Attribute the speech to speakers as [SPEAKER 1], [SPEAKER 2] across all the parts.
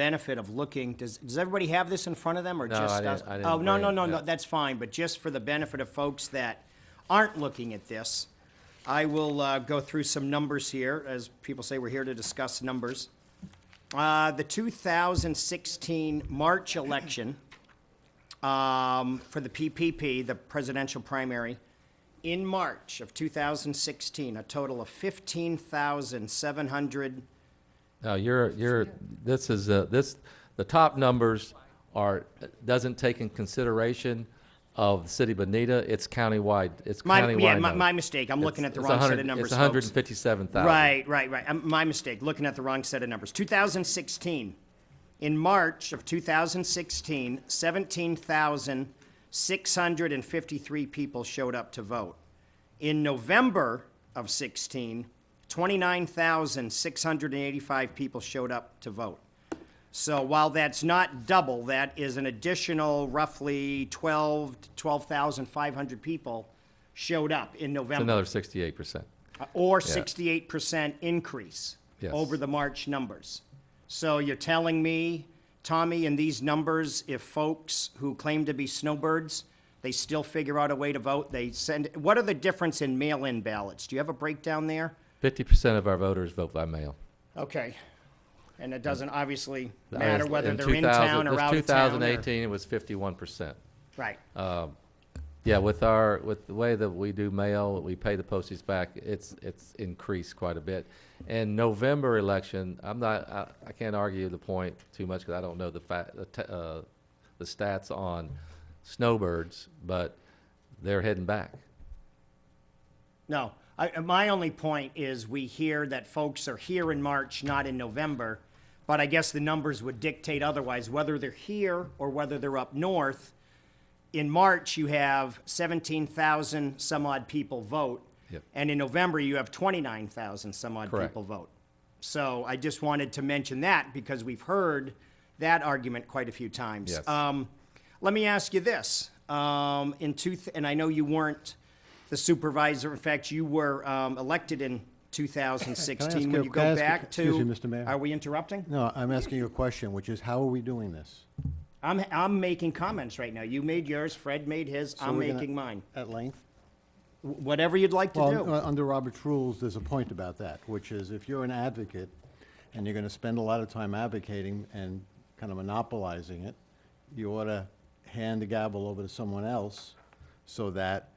[SPEAKER 1] benefit of looking, does, does everybody have this in front of them, or
[SPEAKER 2] No,
[SPEAKER 1] just
[SPEAKER 2] I didn't-
[SPEAKER 1] us?
[SPEAKER 2] I didn't
[SPEAKER 1] Oh, no, no,
[SPEAKER 2] bring it,
[SPEAKER 1] no, no,
[SPEAKER 2] yeah.
[SPEAKER 1] that's fine, but just for the benefit of folks that aren't looking at this, I will uh, go through some numbers here, as people say, we're here to discuss numbers. Uh, The 2016 March election um, for the PPP, the presidential primary, in March of 2016, a total of 15,700
[SPEAKER 2] No, you're, you're, this is, uh, this, the top numbers are, doesn't take in consideration of the city of Bonita, it's countywide, it's
[SPEAKER 1] My,
[SPEAKER 2] countywide.
[SPEAKER 1] yeah, my,
[SPEAKER 2] numbers.
[SPEAKER 1] my mistake. I'm looking
[SPEAKER 2] It's-
[SPEAKER 1] at the
[SPEAKER 2] it's
[SPEAKER 1] wrong set
[SPEAKER 2] 100
[SPEAKER 1] of numbers.
[SPEAKER 2] It's hundred and
[SPEAKER 1] folks.
[SPEAKER 2] fifty-seven thousand.
[SPEAKER 1] Right, right, right. Um, my mistake. Looking at the wrong set of numbers. 2016. In March of 2016, 17,653 people showed up to vote. In November of 16, 29,685 people showed up to vote. So while that's not double, that is an additional roughly 12 12,500 people showed up in November.
[SPEAKER 2] It's another sixty-eight percent.
[SPEAKER 1] Uh, Or sixty-eight percent increase
[SPEAKER 2] Yes.
[SPEAKER 1] over the March numbers. So you're telling me, Tommy, in these numbers, if folks who claim to be snowbirds, they still figure out a way to vote, they send, what are the difference in mail-in ballots? Do you have a breakdown there?
[SPEAKER 2] Fifty percent of our voters vote by mail.
[SPEAKER 1] Okay. And it doesn't obviously
[SPEAKER 2] That
[SPEAKER 1] matter
[SPEAKER 2] is-
[SPEAKER 1] whether they're in town or out of town.
[SPEAKER 2] In two thousand
[SPEAKER 1] or-
[SPEAKER 2] eighteen, it was fifty-one percent.
[SPEAKER 1] Right,
[SPEAKER 2] Yeah, with our, with the way that we do mail, we pay the postage back, it's, it's increased quite a bit. And November election, I'm not, I, I can't argue the point too much, because I don't know the fa, the t- uh, the stats on snowbirds, but they're heading back.
[SPEAKER 1] no. I, my only point is we hear that folks are here in March, not in November. But I guess the numbers would dictate otherwise, whether they're here or whether they're up north. In March, you have seventeen thousand some odd people vote.
[SPEAKER 2] Yep.
[SPEAKER 1] And in November, you have twenty-nine thousand some odd
[SPEAKER 2] Correct.
[SPEAKER 1] people vote. So I just wanted to mention that because we've heard that argument quite a few times.
[SPEAKER 2] Yes.
[SPEAKER 1] Um, let me ask you this. Um, in two, th- and I know you weren't the supervisor. In fact, you were um, elected in 2016.
[SPEAKER 3] Can I ask
[SPEAKER 1] When
[SPEAKER 3] a-
[SPEAKER 1] you
[SPEAKER 3] can I
[SPEAKER 1] go
[SPEAKER 3] ask a-
[SPEAKER 1] back to,
[SPEAKER 3] excuse me, Mr. Mayor?
[SPEAKER 1] are we interrupting?
[SPEAKER 3] No, I'm asking you a question, which is, how are we doing this?
[SPEAKER 1] I'm I'm making comments right now. You made yours. Fred made his.
[SPEAKER 3] So
[SPEAKER 1] I'm
[SPEAKER 3] we're gonna-
[SPEAKER 1] making mine.
[SPEAKER 3] At length?
[SPEAKER 1] W- whatever you'd like to do.
[SPEAKER 3] Well, uh, under Robert's rules, there's a point about that, which is if you're an advocate and you're going to spend a lot of time advocating and kind of monopolizing it, you ought to hand the gavel over to someone else so that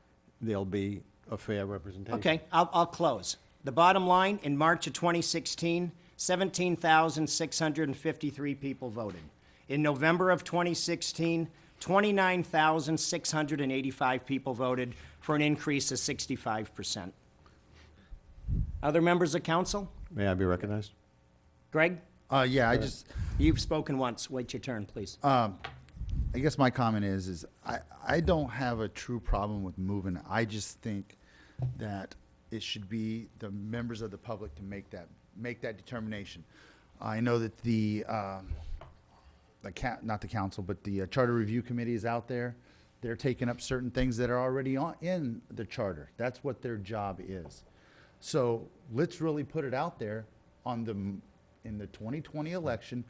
[SPEAKER 3] there'll be a fair representation.
[SPEAKER 1] Okay, I'll, I'll close. The bottom line, in March of 2016, 17,653 people voted. In November of 2016, 29,685 people voted for an increase of 65%. Other members of council?
[SPEAKER 3] May I be recognized?
[SPEAKER 1] Greg,
[SPEAKER 4] Uh, yeah, I just,
[SPEAKER 1] you've spoken once. Wait your turn, please.
[SPEAKER 4] I guess my comment is, is I, I don't have a true problem with moving. I just think that it should be the members of the public to make that, make that determination. I know that the, um, the ca- not the council, but the uh, charter review committee is out there. They're taking up certain things that are already on, in the charter. That's what their job is. So let's really put it out there on the, m- in the 2020 election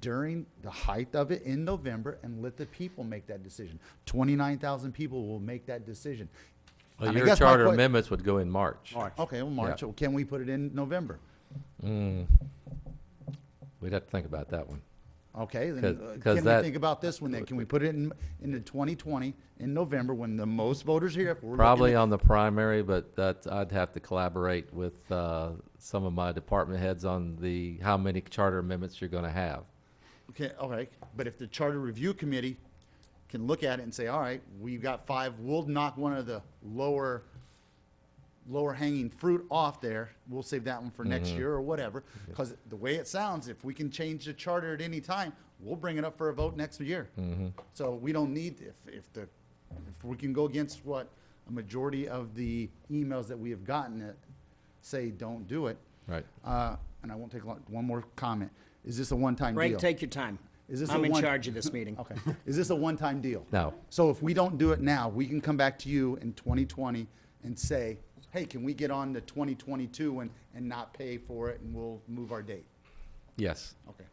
[SPEAKER 4] during the height of it in November and let the people make that decision. 29,000 people will make that decision.
[SPEAKER 2] Well,
[SPEAKER 4] And I
[SPEAKER 2] your
[SPEAKER 4] guess my
[SPEAKER 2] charter
[SPEAKER 4] que-
[SPEAKER 2] amendments would go in March.
[SPEAKER 4] Okay, well, March,
[SPEAKER 2] Yeah.
[SPEAKER 4] well, can we put it in November?
[SPEAKER 2] We'd have to think about that one.
[SPEAKER 4] Okay, then
[SPEAKER 2] 'Cause-
[SPEAKER 4] uh,
[SPEAKER 2] 'cause
[SPEAKER 4] can
[SPEAKER 2] that-
[SPEAKER 4] we think about this one then? Can we put it in, into 2020 in November when the most voters here? if we're looking
[SPEAKER 2] Probably
[SPEAKER 4] at-
[SPEAKER 2] on the primary, but that, I'd have to collaborate with, uh, some of my department heads on the, how many charter amendments you're gonna have.
[SPEAKER 4] Okay, all right, but if the charter review committee can look at it and say, all right, we've got five, we'll knock one of the lower, lower hanging fruit off there, we'll save that one for next year or whatever, because the way it sounds, if we can change the charter at any time, we'll bring it up for a vote next year. So we don't need, if, if the, if we can go against what a majority of the emails that we have gotten that say, don't do it.
[SPEAKER 2] Right.
[SPEAKER 4] Uh, and I won't take long, one more comment, is this a one-time deal?
[SPEAKER 1] Greg, take your time.
[SPEAKER 4] Is this
[SPEAKER 1] I'm
[SPEAKER 4] a
[SPEAKER 1] in
[SPEAKER 4] one-
[SPEAKER 1] charge of this meeting.
[SPEAKER 4] Okay. Is this a one-time deal?
[SPEAKER 2] No.
[SPEAKER 4] So if we don't do it now, we can come back to you in 2020 and say, hey, can we get on to 2022 and, and not pay for it and we'll move our date?
[SPEAKER 2] Yes.
[SPEAKER 4] Okay.